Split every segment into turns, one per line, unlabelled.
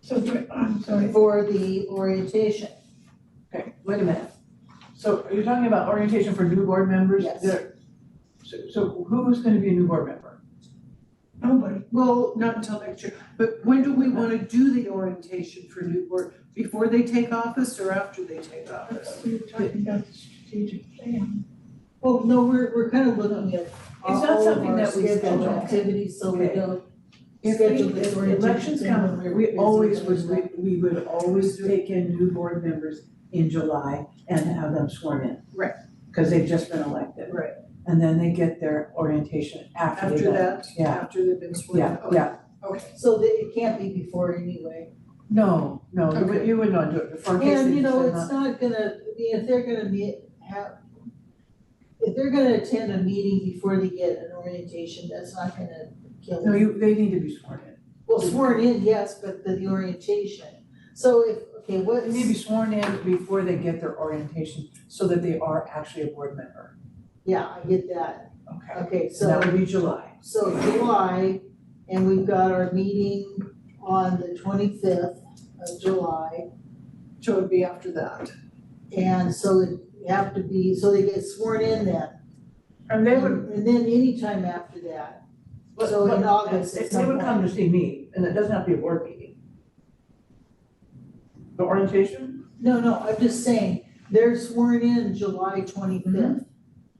So, for- I'm sorry,
for the orientation.
Okay.
Wait a minute,
So are you talking about orientation for new board members?
Yes.
There- So, so who's gonna be a new board member?
nobody,
Well, not until next year, but when do we wanna do the orientation for new board? Before they take office or after they take office?
we were talking about the strategic plan.
well, no, we're, we're kind of looking at all
not
of
something
our
that we
scheduled
schedule.
activities, so we
Okay.
don't
If
schedule
we,
this
if
orientation.
elections
thing when
come,
we're
we
busy
always
doing
would,
that.
we, we would always take in new board members in July and have them sworn in.
Right.
Cause they've just been elected.
Right.
And then they get their orientation after they
After that,
Yeah.
after they've been sworn in?
Yeah,
Okay.
yeah,
So that it can't be before anyway.
no, no, you would,
Okay.
you would not do it before, in case
And
they
you know,
decide
it's
not-
not gonna, I mean, if they're gonna meet, have, if they're gonna attend a meeting before they get an orientation, that's not gonna kill
No,
them.
you, they need to be sworn in.
Well, sworn in, yes, but the, the orientation. So if, okay, what's?
They need to be sworn in before they get their orientation, so that they are actually a board member.
Yeah, I get that.
Okay.
Okay,
So that
so,
would be July.
so July, and we've got our meeting on the twenty-fifth of July.
So it'd be after that.
And so it have to be, so they get sworn in then.
And they would,
And then anytime after that.
but,
So in
but-
August,
they-
it's
they would
not
come to see me, and it doesn't have to be a board meeting. The orientation?
No, no, I'm just saying, they're sworn in July
Mm-hmm.
twenty-fifth.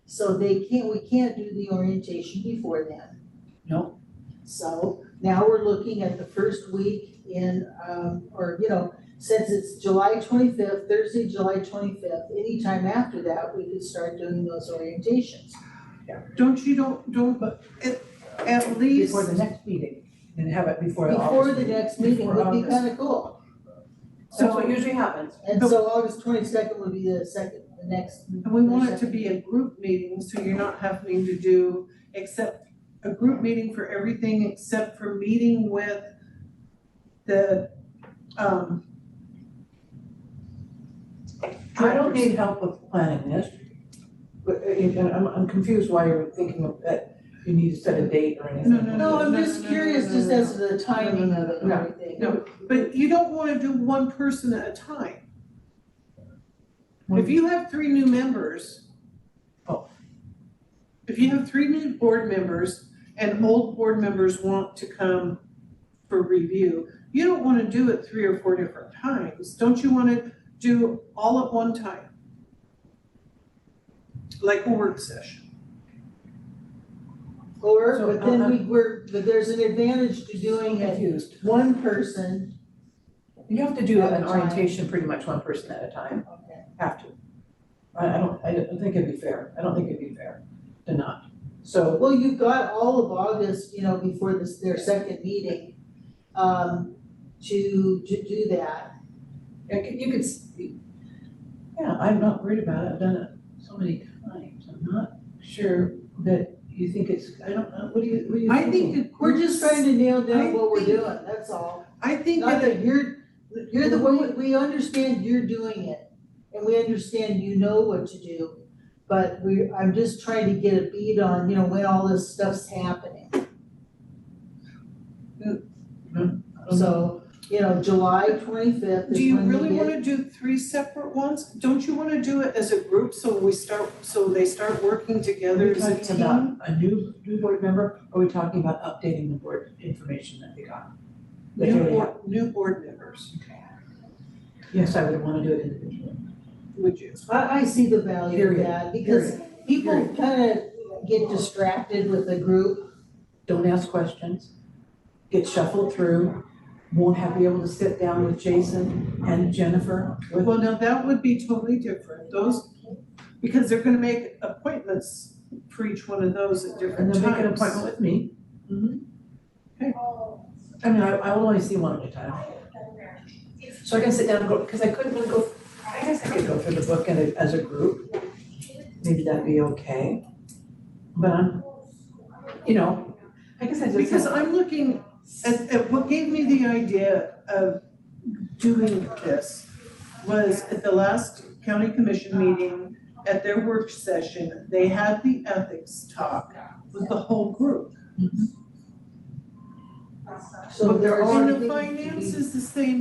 So they can't, we can't do the orientation before then.
No.
So now we're looking at the first week in, um, or, you know, since it's July twenty-fifth, Thursday, July twenty-fifth, anytime after that, we could start doing those orientations.
Don't you, don't, don't, at, at least,
Before the next meeting, and have it before the
Before
August
the
meeting.
next meeting would
Before
be
August.
kinda cool.
So what usually happens,
And so August twenty-second would be the second, the next.
and we want it to be a group meeting, so you're not having to do, except, a group meeting for everything except for meeting with the, um.
I don't need help with planning this. But, uh, you know, I'm, I'm confused why you're thinking of that you need to set a date or anything.
No, no,
No, I'm
no,
just
no, no,
curious,
no,
just
no,
as the timing of it and
no,
everything.
no. But you don't wanna do one person at a time. If you have three new members.
Oh.
If you have three new board members and old board members want to come for review, you don't wanna do it three or four different times. Don't you wanna do all at one time? Like a work session.
Or,
So,
but then we,
uh-uh.
we're, but there's an advantage to doing it
Confused.
one person.
You have to do
At a
an
time.
orientation pretty much one person at a time,
Okay.
have to. I, I don't, I don't think it'd be fair, I don't think it'd be fair to not. So,
Well, you've got all of August, you know, before this, their second meeting, um, to, to do that.
I could- you could, s- yeah, I'm not worried about it, I've done it so many times, I'm not sure that you think it's, I don't know, what do you, what do you
I
think?
think that
We're just trying to nail
I
down what we're
think-
doing, that's all.
I think
Not
that a
that you're, you're the one, we understand you're doing it, and we understand you know what to do. But we, I'm just trying to get a beat on, you know, when all this stuff's happening. So, you know, July twenty-fifth
Hmm. Do
is
you
when
really
we get,
wanna do three separate ones? Don't you wanna do it as a group so we start, so they start working
Are we
together as a
talking
team?
about a new, new board member, or are we talking about updating the board information that they got? That they
New
already
board, new board members,
have? Yes, I would wanna do it individually.
would you?
I, I see the value of
Period,
that, because people kinda get distracted with the group.
don't ask questions, get shuffled through, won't have, be able to sit down with Jason and Jennifer. with-
Well, now that would be totally different, those, because they're gonna make appointments for each one of those at
And
different
then
times.
make an appointment with me.
Mhm.
Okay. I mean, I, I will only see one at a time, so I can sit down and go, because I couldn't really go, I guess I could go through the book in a, as a group. Maybe that'd be okay, but I'm, you know, I guess I just.
Because I'm looking at, at what gave me the idea of doing this was at the last county commission meeting, at their work session, they had the ethics talk with the whole group.
So there are things
And the
to be-
finance is the same